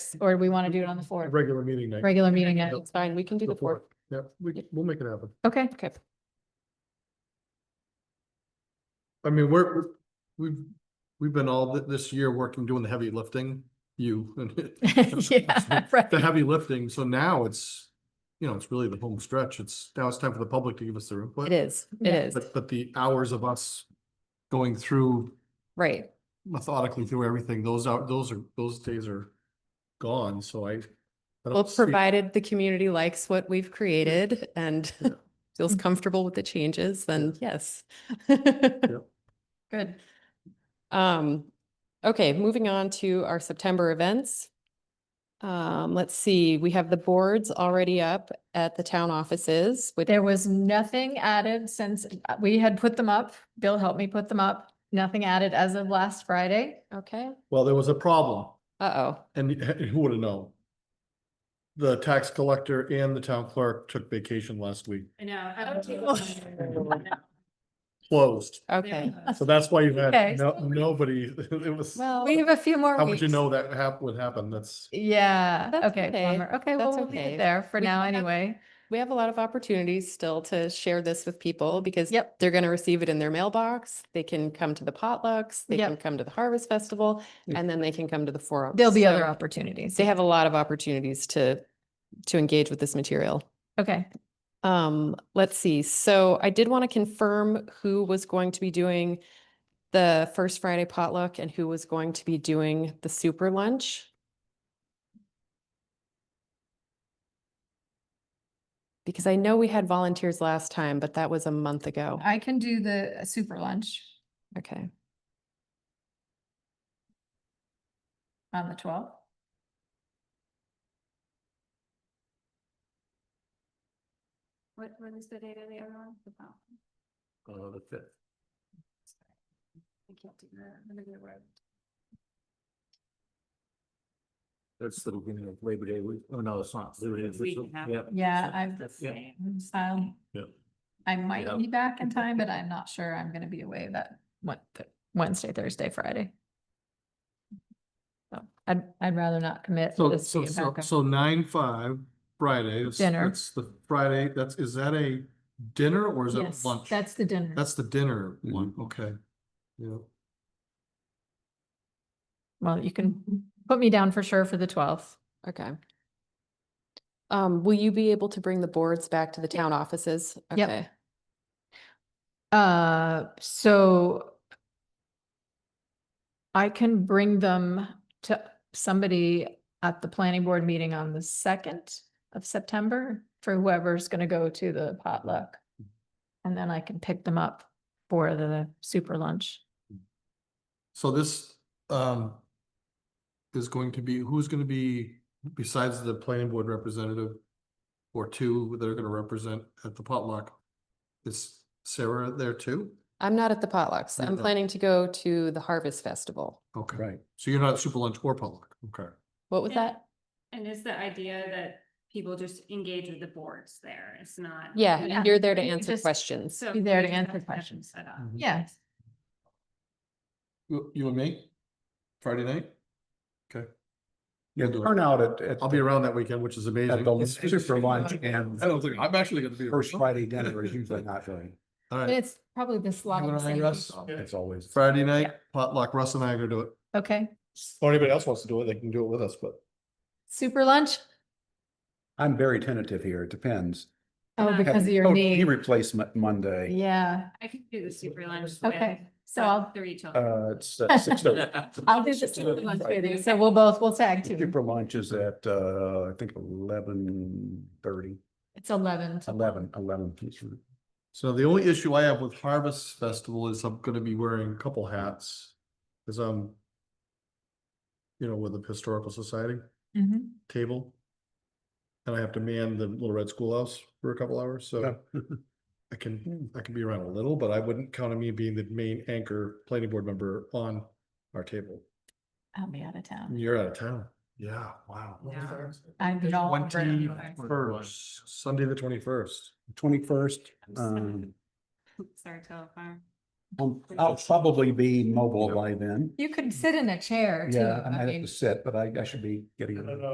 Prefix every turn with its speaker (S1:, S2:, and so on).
S1: six, or do we want to do it on the fourth?
S2: Regular meeting night.
S1: Regular meeting night.
S2: Yep.
S3: It's fine, we can do the fourth.
S2: Yeah, we, we'll make it happen.
S1: Okay,
S3: Okay,
S2: I mean, we're, we've, we've been all th- this year working, doing the heavy lifting, you. and-
S1: yeah,
S2: The
S1: right.
S2: heavy lifting, so now it's, you know, it's really the home stretch. It's, now it's time for the public to give us their input.
S3: it is, it
S1: Yeah.
S3: is,
S2: But, but the hours of us going through
S3: right.
S2: methodically through everything, those are, those are, those days are gone, so I. I don't
S3: Well,
S2: see-
S3: provided the community likes what we've created and
S2: Yeah.
S3: feels comfortable with the changes, then yes.
S1: Good.
S3: Um, okay, moving on to our September events. Um, let's see, we have the boards already up at the town offices with,
S1: There was nothing added since uh, we had put them up. Bill helped me put them up. Nothing added as of last Friday.
S3: okay,
S2: Well, there was a problem,
S3: uh-oh,
S2: and who would have known? The tax collector and the town clerk took vacation last week,
S4: I know. I
S1: Oh,
S4: don't take
S1: well.
S4: it.
S2: closed,
S3: okay.
S2: so that's why you
S1: Okay.
S2: had no, nobody, it was.
S3: Well,
S1: We have a few more
S2: How would
S1: weeks.
S2: you know that hap, would happen? That's,
S1: Yeah,
S3: That's
S1: okay,
S3: okay.
S1: bummer. Okay, well,
S3: That's
S1: we'll leave
S3: okay.
S1: it there for
S3: We
S1: now
S3: can have-
S1: anyway.
S3: we have a lot of opportunities still to share this with people because
S1: Yep.
S3: they're going to receive it in their mailbox. They can come to the potlucks, they
S1: Yep.
S3: can come to the harvest festival,
S2: Yeah.
S3: and then they can come to the forum.
S1: There'll be other
S3: So
S1: opportunities.
S3: They have a lot of opportunities to, to engage with this material.
S1: Okay,
S3: Um, let's see. So I did want to confirm who was going to be doing the first Friday potluck and who was going to be doing the super lunch. Because I know we had volunteers last time, but that was a month ago.
S1: I can do the uh, super lunch
S3: Okay.
S1: on the twelfth.
S4: What, what is the date of the other one? The file.
S2: uh,
S5: Oh,
S2: the fifth.
S4: I can't do that. I'm gonna go to work.
S5: That's the beginning of Labor Day week. Oh, no, it's not. Labor Day
S4: It's a week
S5: week.
S4: and a half.
S5: Yep.
S1: Yeah,
S5: So,
S1: I'm the
S5: yeah.
S1: same. style.
S2: Yep.
S1: I might
S5: Yep.
S1: be back in time, but I'm not sure I'm gonna be away that one, th- Wednesday, Thursday, Friday. So I'd, I'd rather not commit.
S2: So,
S1: just to
S2: so,
S1: get
S2: so,
S1: back up.
S2: so nine, five, Friday. that's-
S1: Dinner.
S2: That's the Friday, that's, is that a dinner or is that
S1: Yes,
S2: lunch?
S1: That's the dinner.
S2: That's the dinner one,
S5: Mm-hmm.
S2: okay. Yeah,
S1: Well, you can put me down for sure for the twelfth.
S3: Okay. Um, will you be able to bring the boards back to the town offices?
S1: Yep.
S3: Okay.
S1: Uh, so I can bring them to somebody at the planning board meeting on the second of September for whoever's gonna go to the potluck. And then I can pick them up for the super lunch.
S2: so this, um, is going to be, who's gonna be, besides the planning board representative or two that are gonna represent at the potluck, is Sarah there too?
S3: I'm not at the potlucks.
S2: You're
S3: I'm
S2: not.
S3: planning to go to the harvest festival.
S2: Okay. Right. So you're not at super lunch or potluck, okay.
S3: What was
S4: Yeah.
S3: that?
S4: And it's the idea that people just engage with the boards there. It's not.
S3: Yeah,
S1: Yeah.
S3: you're there to
S1: You
S3: answer
S1: just-
S3: questions.
S4: So
S1: Be there
S4: you
S1: to
S4: just have
S1: answer
S4: have them
S1: questions.
S4: Set up.
S2: Mhm.
S1: Yes.
S2: You, you and me? Friday night? Okay.
S5: Yeah,
S2: We'll do it.
S5: turnout at, at.
S2: I'll be around that weekend, which is amazing.
S5: At the super lunch and
S2: I don't think, I'm actually gonna be.
S5: first Friday dinner is usually not very,
S1: But
S2: All right,
S1: it's probably this
S2: wanna
S1: lot.
S2: hang us?
S5: it's always.
S2: Friday night potluck, Russ and I are gonna do it.
S1: Okay,
S2: Or anybody else wants to do it, they can do it with us, but.
S1: super lunch?
S5: I'm very tentative here. It depends.
S1: Oh,
S4: Uh,
S1: because of your
S5: Oh, knee
S1: knee.
S5: Replacement Monday.
S1: Yeah,
S4: I could do the super lunch. with,
S1: okay, so
S4: uh,
S1: I'll,
S4: Three children.
S5: Uh, it's uh, six thirty.
S1: I'll do the super lunch with you, so we'll both, we'll tag team.
S5: Super lunch is at, uh, I think eleven thirty,
S1: It's eleven. to
S5: eleven, eleven.
S2: So the only issue I have with Harvest Festival is I'm gonna be wearing a couple hats. Cause I'm. You know, with the Historical Society
S1: Mhm.
S2: table. And I have to man the Little Red Schoolhouse for a couple hours, so I can, I can be around a little, but I wouldn't count on me being the main anchor planning board member on our table.
S1: I'll be out of town.
S2: You're out of town. Yeah, wow.
S4: Yeah.
S1: I'm all over it
S2: Twenty
S1: anyway.
S2: first, Sunday the twenty first.
S5: Twenty-first,
S4: I'm
S5: um,
S4: Sorry, telephone.
S6: I'll I'll probably be mobile by then.
S4: You could sit in a chair too.
S6: Yeah, I might
S4: mean-
S6: have to sit, but I, I should be getting.